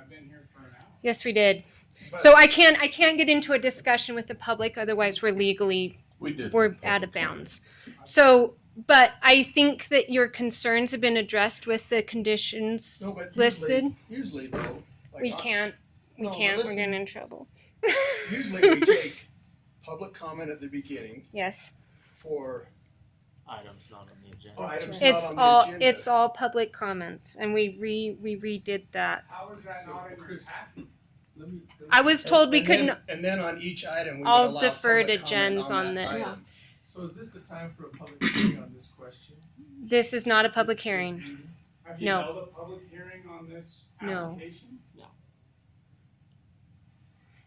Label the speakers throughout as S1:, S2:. S1: I've been here for an hour.
S2: Yes, we did.
S1: But-
S2: So I can't, I can't get into a discussion with the public, otherwise we're legally,
S3: We did.
S2: we're out of bounds. So, but I think that your concerns have been addressed with the
S1: No,
S2: conditions
S1: but usually-
S2: listed.
S1: Usually though, like.
S2: We
S1: I-
S2: can't, we
S1: No, but
S2: can't, we're
S1: listen.
S2: getting in trouble.
S1: Usually we take public comment at the beginning
S2: Yes,
S1: for
S4: items not on the agenda.
S1: items not
S2: it's
S1: on the
S2: all,
S1: agenda.
S2: it's all public comments and we re, we redid that.
S1: How is that not in your packet?
S5: Let me- let me-
S2: I was told we
S1: And then-
S2: couldn't,
S1: And then on each item, we would
S2: I'll
S1: allow
S2: defer
S1: public
S2: to
S1: comment
S2: Jens on
S1: that
S2: this.
S1: item.
S5: So is this the time for a public hearing on this question?
S2: this is not a public
S5: This- this
S2: hearing.
S5: meeting?
S1: Have you
S2: No.
S1: held a public hearing on this
S2: No.
S1: application?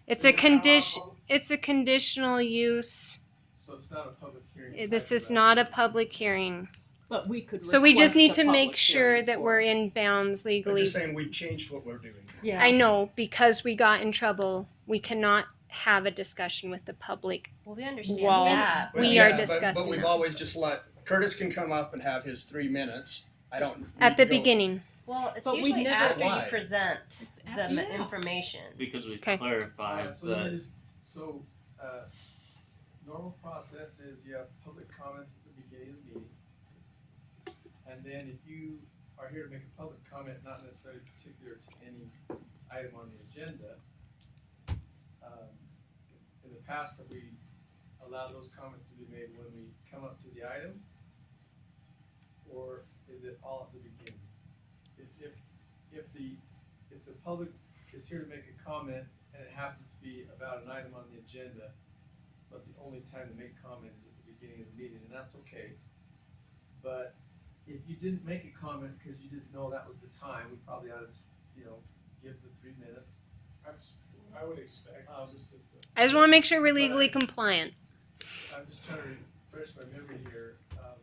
S2: It's
S1: So
S2: a
S1: we're gonna allow
S2: condition,
S1: public-
S2: it's a conditional use.
S5: So it's not a public hearing.
S2: It-
S5: type
S2: This
S5: of
S2: is not a
S5: action.
S2: public hearing.
S6: But we could.
S2: So we just
S6: request
S2: need
S6: a
S2: to make
S6: public
S2: sure
S6: hearing
S2: that
S6: for-
S2: we're in bounds
S1: I'm
S2: legally.
S1: just saying we've changed what we're doing.
S6: Yeah.
S2: I know, because we got in trouble, we cannot have a discussion with the public.
S7: Well, we understand
S2: Wall.
S7: that.
S1: But
S2: We
S1: yeah,
S2: are
S1: but- But
S2: discussing
S1: we've
S2: that.
S1: always just let, Curtis can come up and have his three minutes. I don't.
S2: At
S1: need
S2: the
S1: to go-
S2: beginning,
S7: Well, it's
S6: But we've
S7: usually
S6: never-
S7: after
S1: Why?
S7: you present
S6: It's
S7: the
S6: af-
S7: m
S6: yeah.
S7: information.
S4: Because we
S2: Okay.
S4: clarified
S5: Alright, so let me
S4: that
S5: just- So, uh, normal process is you have public comments at the beginning of the meeting. And then if you are here to make a public comment, not necessarily particular to any item on the agenda, um, in the past, have we allowed those comments to be made when we come up to the item? Or is it all at the beginning? If, if, if the, if the public is here to make a comment and it happens to be about an item on the agenda, but the only time to make comment is at the beginning of the meeting, and that's okay. But if you didn't make a comment because you didn't know that was the time, we probably ought to, just, you know, give the three minutes.
S1: That's what I would expect.
S5: Um,
S2: I just wanna make sure we're legally compliant.
S5: I'm just trying to refresh my memory here, um.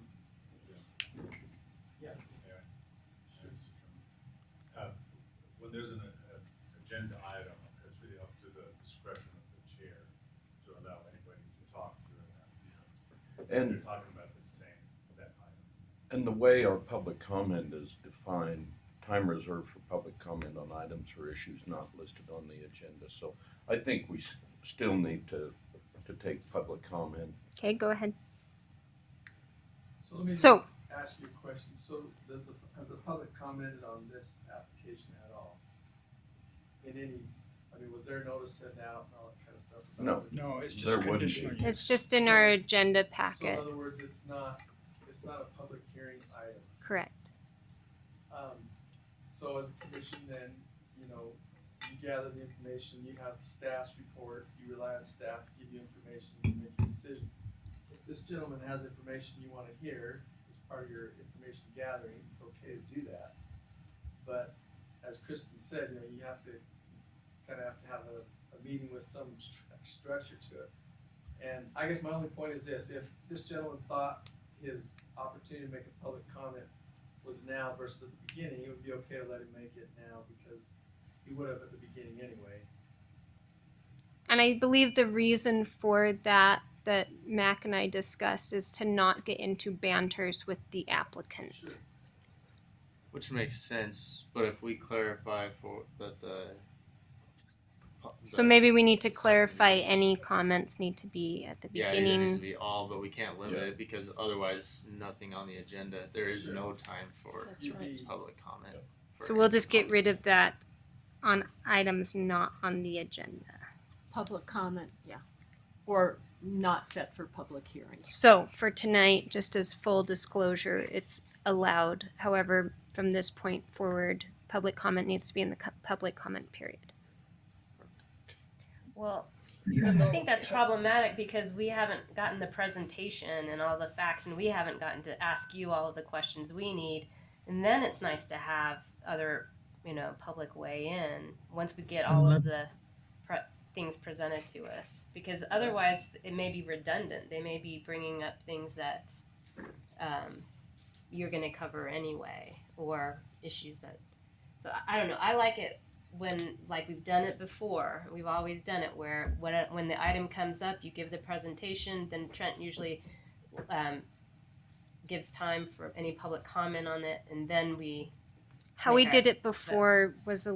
S5: Yeah.
S8: Uh, When there's an, uh, agenda item, it's really up to the discretion of the chair to allow anybody to talk during that.
S3: And-
S8: You're talking about the same, that item.
S3: And the way our public comment is defined, time reserved for public comment on items or issues not listed on the agenda. So I think we s- still need to, to take public comment.
S2: Okay, go ahead.
S5: So let me just
S2: So,
S5: ask you a question, so does the, has the public commented on this application at all? In any, I mean, was there notice sent out and all that kind of stuff? about
S3: No.
S5: it?
S1: No, it's just
S3: There wouldn't be.
S1: conditional use.
S2: it's just in our agenda
S5: So in
S2: packet,
S5: other words, it's not, it's not a public hearing item.
S2: correct?
S5: Um, so as a commission then, you know, you gather the information, you have staff's report, you rely on staff to give you information, you make your decision. If this gentleman has information you wanna hear as part of your information gathering, it's okay to do that. But as Kristen said, you know, you have to, kinda have to have a, a meeting with some stru- structure to it. And I guess my only point is this, if this gentleman thought his opportunity to make a public comment was now versus at the beginning, it would be okay to let him make it now because he would have at the beginning anyway.
S2: And I believe the reason for that, that Mac and I discussed, is to not get into banters with the applicant.
S4: which makes sense, but if we clarify for that the
S2: So maybe we need to clarify any comments need to be at the
S4: yeah, it either needs to
S2: beginning.
S4: be all, but we can't limit
S3: Yeah.
S4: it because otherwise nothing on the agenda. There is
S5: Sure.
S4: no time for
S6: That's
S5: You'd
S6: right.
S5: be-
S4: public comment. for
S2: So we'll
S4: any
S2: just get
S4: comment.
S2: rid of that on items not on the agenda.
S6: Public comment, yeah, or not set for public hearing.
S2: So for tonight, just as full disclosure, it's allowed. However, from this point forward, public comment needs to be in the cu- public comment period.
S7: Well,
S1: Even
S7: I
S1: though-
S7: think that's problematic because we haven't gotten the presentation and all the facts, and we haven't gotten to ask you all of the questions we need. And then it's nice to have other, you know, public weigh in once we get all of the pre- things presented to us. Because otherwise, it may be redundant. They may be bringing up things that um, you're going to cover anyway, or issues that. So I- I don't know. I like it when like we've done it before we've always done it where when, when the item comes up you give the presentation then trent usually um, gives time for any public comment on it and then we
S2: How we
S7: Okay.
S2: did it before was a